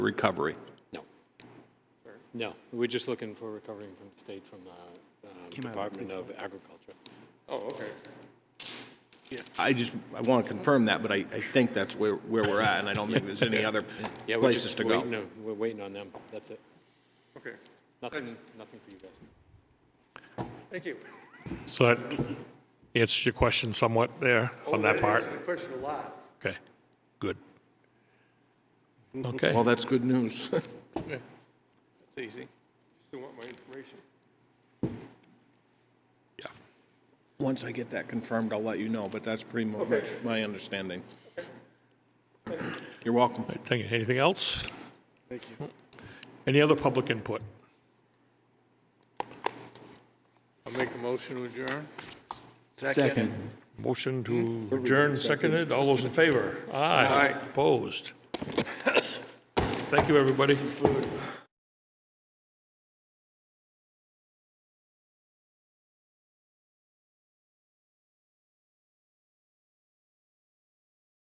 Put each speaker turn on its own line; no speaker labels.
recovery?
No. No, we're just looking for recovering from the state, from the um, Department of Agriculture.
Oh, okay.
I just, I want to confirm that, but I, I think that's where, where we're at, and I don't think there's any other
Yeah, we're
places
just
to
waiting
go.
on- We're waiting on them, that's it.
Okay.
Nothing, nothing for you guys.
Thank you.
So that answers your question somewhat there on that part?
answered the Question a lot.
Okay, good. Okay,
Well, that's good news.
It's easy. Still want my information?
yeah.
Once I get that confirmed, I'll let you know, but that's pretty much my understanding. You're welcome.
All right, Thank you. Anything else? Thank you. Any other public input?
I'll make a motion to adjourn.
Second.
Motion to adjourn seconded. All those in favor? Aye. Opposed? Thank you, everybody.